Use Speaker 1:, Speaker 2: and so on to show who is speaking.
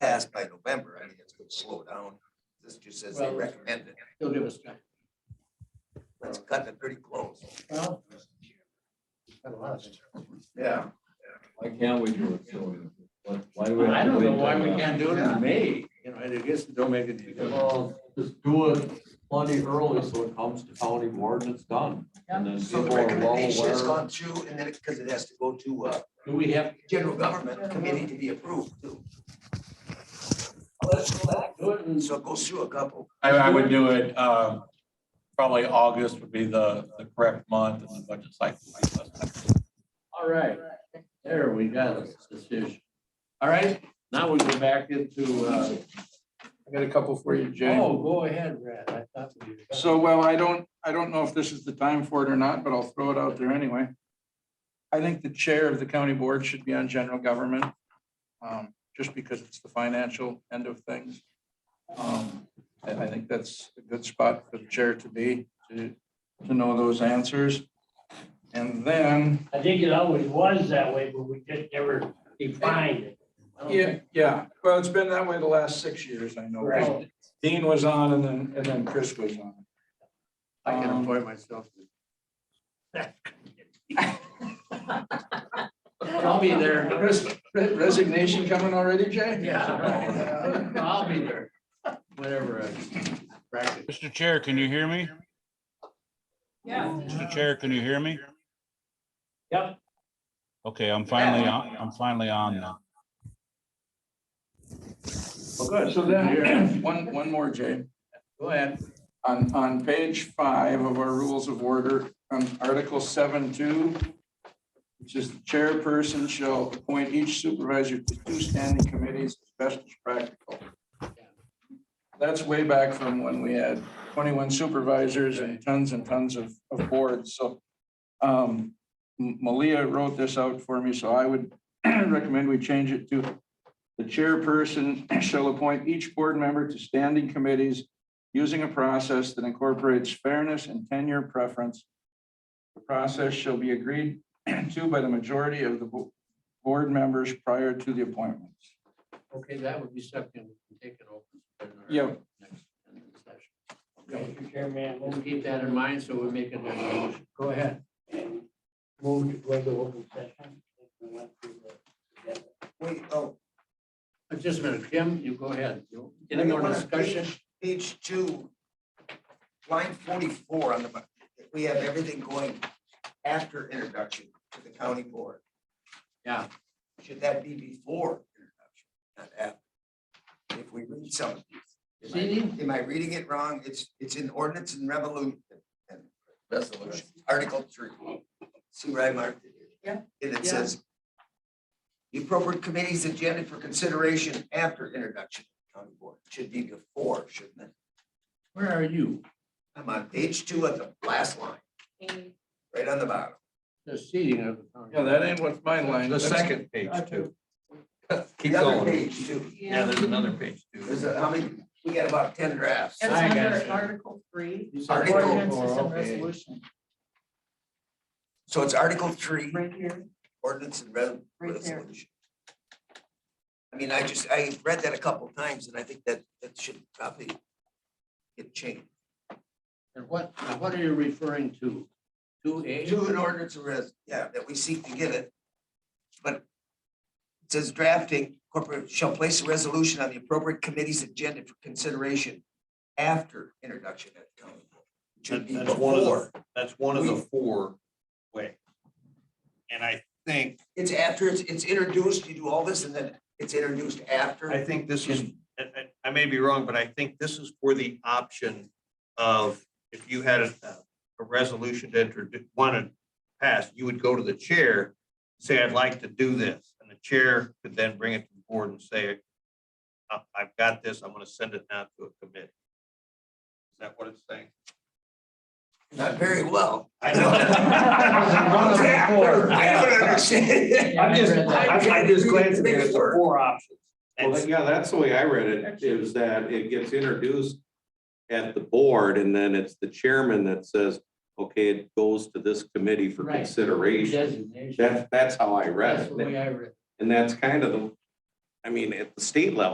Speaker 1: passed by November, I think it's gonna slow down. This just says they
Speaker 2: Well-
Speaker 1: recommend it.
Speaker 2: He'll give us time.
Speaker 1: Let's cut it pretty close.
Speaker 2: Well, got a lot of time.
Speaker 1: Yeah.
Speaker 3: Why can't we do it soon? What- Why do we? have
Speaker 2: I
Speaker 3: to
Speaker 2: don't know
Speaker 3: wait
Speaker 2: why
Speaker 3: till
Speaker 2: we
Speaker 3: now?
Speaker 2: can't do it in May, you know, I guess it don't make a difference.
Speaker 4: Well, just do it plenty early so it comes to county board and it's done. And then
Speaker 1: So the
Speaker 4: people are well
Speaker 1: recommendation has
Speaker 4: aware.
Speaker 1: gone through and then it, because it has to go to uh
Speaker 2: Do we have,
Speaker 1: general government committee to be approved too.
Speaker 2: let's go back, do it in
Speaker 1: So it goes through a couple.
Speaker 5: I, I would do it, um, probably August would be the, the correct month, and the budget cycle. might last.
Speaker 2: All right, there we got it, decision. All right, now we go back into, uh,
Speaker 6: I got a couple for you, Jay.
Speaker 2: oh, go ahead, Brad, I thought we. were done.
Speaker 6: So, well, I don't, I don't know if this is the time for it or not, but I'll throw it out there anyway. I think the chair of the county board should be on general government, um, just because it's the financial end of things. Um, I, I think that's a good spot for the chair to be, to, to know those answers. And then,
Speaker 7: I think it always was that way, but we just never defined it. I don't
Speaker 6: yeah, yeah, well, it's been that way the last six years, I know.
Speaker 7: Right.
Speaker 6: Dean was on and then, and then Chris was on.
Speaker 2: I can
Speaker 6: Um,
Speaker 2: appoint myself. I'll be there,
Speaker 6: Res- Resignation coming already, Jay? Oh,
Speaker 2: yeah, I'll be there, whenever I practice.
Speaker 8: Mr. Chair, can you hear me?
Speaker 9: Yeah.
Speaker 8: Mr. Chair, can you hear me?
Speaker 7: Yep.
Speaker 8: Okay, I'm finally on, I'm finally on now.
Speaker 2: Well, good,
Speaker 6: So then, one, one more, Jay.
Speaker 2: Go ahead.
Speaker 6: On, on page five of our rules of order, on Article seven two, which is the chairperson shall appoint each supervisor to two standing committees as best as practical. That's way back from when we had twenty-one supervisors and tons and tons of, of boards, so. um, M- Malia wrote this out for me, so I would recommend we change it to the chairperson shall appoint each board member to standing committees using a process that incorporates fairness and tenure preference. The process shall be agreed to by the majority of the bo- board members prior to the appointments.
Speaker 2: Okay, that would be something we can take it open.
Speaker 6: Yeah.
Speaker 2: Next, in the session.
Speaker 7: Mr. Chairman,
Speaker 2: We'll keep that in mind, so we're making that motion. Go ahead.
Speaker 7: move to go into open session. We went through the-
Speaker 1: Wait, oh,
Speaker 2: Uh, Just a minute, Kim, you go ahead. You- Any more discussion?
Speaker 1: page two. Line forty-four on the, bu- we have everything going after introduction to the county board.
Speaker 2: Yeah.
Speaker 1: Should that be before introduction, not after? If we read some of these. Am I- am I reading it wrong? It's, it's in ordinance and revolution and resolution, article three. See where I marked it? Yeah. And it says. The appropriate committee's agenda for consideration after introduction to county board should be before, shouldn't it?
Speaker 2: Where are you?
Speaker 1: I'm on page two of the last line, right on the bottom.
Speaker 2: The seating of the. county.
Speaker 6: Yeah, that ain't what's my line.
Speaker 5: The
Speaker 6: That's-
Speaker 5: second page too. Keep
Speaker 1: The other
Speaker 5: going.
Speaker 1: page too.
Speaker 5: Yeah,
Speaker 9: Yeah.
Speaker 5: there's another page too.
Speaker 1: There's a, how many, we got about ten drafts.
Speaker 9: It's
Speaker 2: I got
Speaker 9: under
Speaker 2: you.
Speaker 9: Article three,
Speaker 2: You said
Speaker 1: Article
Speaker 2: ordinance.
Speaker 9: ordinances and
Speaker 2: Okay.
Speaker 9: resolution,
Speaker 1: So it's article three,
Speaker 9: right here,
Speaker 1: ordinance and res-
Speaker 9: Right there.
Speaker 1: resolution. I mean, I just, I read that a couple of times and I think that, that should probably get changed.
Speaker 2: And what, now what are you referring to? Two A?
Speaker 1: Do an ordinance or res, yeah, that we seek to get it. But it says drafting corporate shall place a resolution on the appropriate committee's agenda for consideration after introduction at county. board. It Should be
Speaker 10: That's one of the-
Speaker 1: before,
Speaker 10: That's one of the
Speaker 1: We-
Speaker 10: four way. And I think,
Speaker 1: it's after, it's, it's introduced, you do all this and then it's introduced after.
Speaker 10: I think this is, I, I- I may be wrong, but I think this is for the option of if you had a, a resolution to introduce, want to pass, you would go to the chair, say, I'd like to do this. And the chair could then bring it to the board and say, I, I've got this, I'm going to send it now to a committee. Is that what it's saying?
Speaker 1: Not very well.
Speaker 10: I
Speaker 7: One of the four.
Speaker 1: I don't understand.
Speaker 7: Yeah, I read that.
Speaker 1: Big word.
Speaker 10: four options. And
Speaker 11: Well, yeah, that's the way I read it, is that it gets introduced at the board and then it's the chairman that says, okay, it goes to this committee for
Speaker 2: Right.
Speaker 11: consideration.
Speaker 2: Designation.
Speaker 11: That's, that's how I read
Speaker 2: That's the
Speaker 11: it.
Speaker 2: way I read it.
Speaker 11: And that's kind of the, I mean, at the state level,